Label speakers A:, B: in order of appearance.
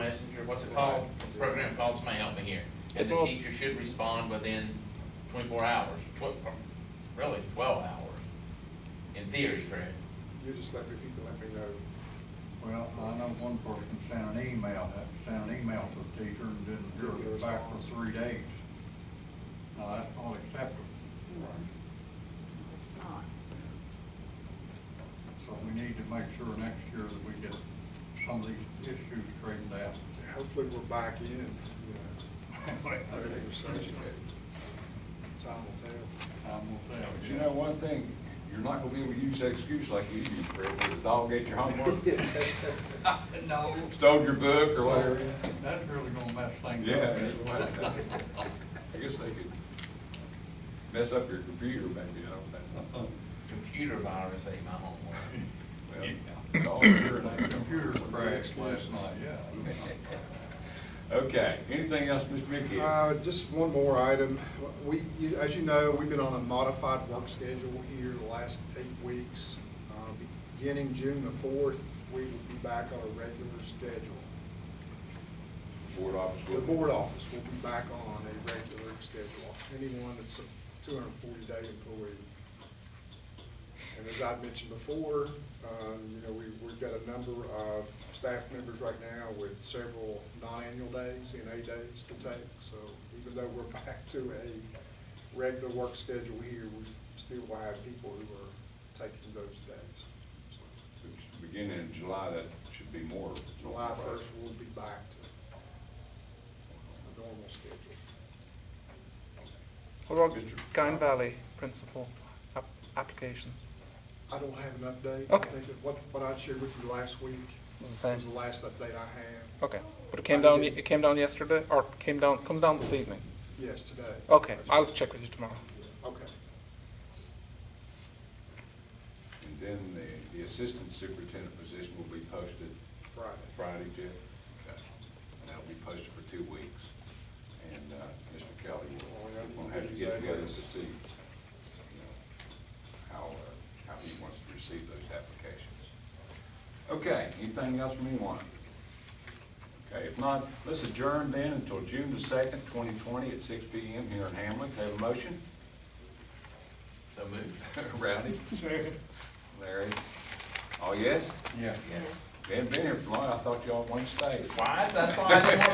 A: what's it called, program called, somebody help me here. And the
B: Well-
A: teacher should respond within twenty-four hours, tw- really twelve hours, in theory, Fred.
C: You just let me, if you can let me know.
D: Well, I know one person sent an email, that sent an email to the teacher and didn't hear
C: Didn't get a
D: back for
C: response.
D: three days. Now, that's not acceptable,
E: It's not.
D: so we need to make sure next year that we get some of these issues straightened out.
C: Hopefully we're back in, you know, regular session. Time will tell.
D: Time will tell.
B: But you know one thing, you're not gonna be able to use that excuse like you used, Fred, where the dog ate your homework,
D: No,
B: stole your book or whatever.
D: that's really gonna mess things
B: Yeah.
D: up.
B: it was. I guess they could mess up your computer maybe, I
D: Uh-huh.
B: don't know.
A: Computer virus ate my homework.
B: Well, it's all good.
D: Computer's crashed
C: Excuses.
D: last night, yeah.
B: Okay, anything else, Mr. Mickey?
C: Uh, just one more item. We, you- as you know, we've been on a modified work schedule here the last eight weeks. Uh, Beginning June the fourth, we will be back on a regular schedule.
B: Board office.
C: The board office will be back on a regular schedule, anyone that's a two hundred and forty day employee. And as I mentioned before, um, you know, we, we've got a number of staff members right now with several non-annual days, and A days to take. So even though we're back to a regular work schedule here, we still will have people who are taking those days. So
B: Beginning in July, that should be more.
C: July first, we'll be back to a normal schedule.
F: What about
B: Mr.
F: Kine Valley principal app- applications?
C: I don't have an update. I
F: Okay.
C: think that What, what I shared with you last week
F: Was the
C: was
F: same.
C: the last update I had.
F: Okay, but it came
C: How
F: down,
C: did it-
F: it came down yesterday, or came down, comes down this evening?
C: Yes, today.
F: Okay,
C: That's
F: I'll
C: right.
F: check with you tomorrow.
C: Okay.
B: And then the, the assistant superintendent position will be posted
C: Friday.
B: Friday, Jeff? Okay. And that'll be posted for two weeks. And, uh, Mr. Kelly will, will have to get together to see, you know, how, uh, how he wants to receive those applications. Okay, anything else from anyone? Okay, if not, let's adjourn then until June the second, twenty twenty, at six P M. here in Hamlin. Have a motion?
A: So moved.
B: Rowdy? Second. Larry? Oh, yes?
D: Yeah.
B: They hadn't been here for long. I thought y'all wanted to stay.
A: Why? That's why I didn't want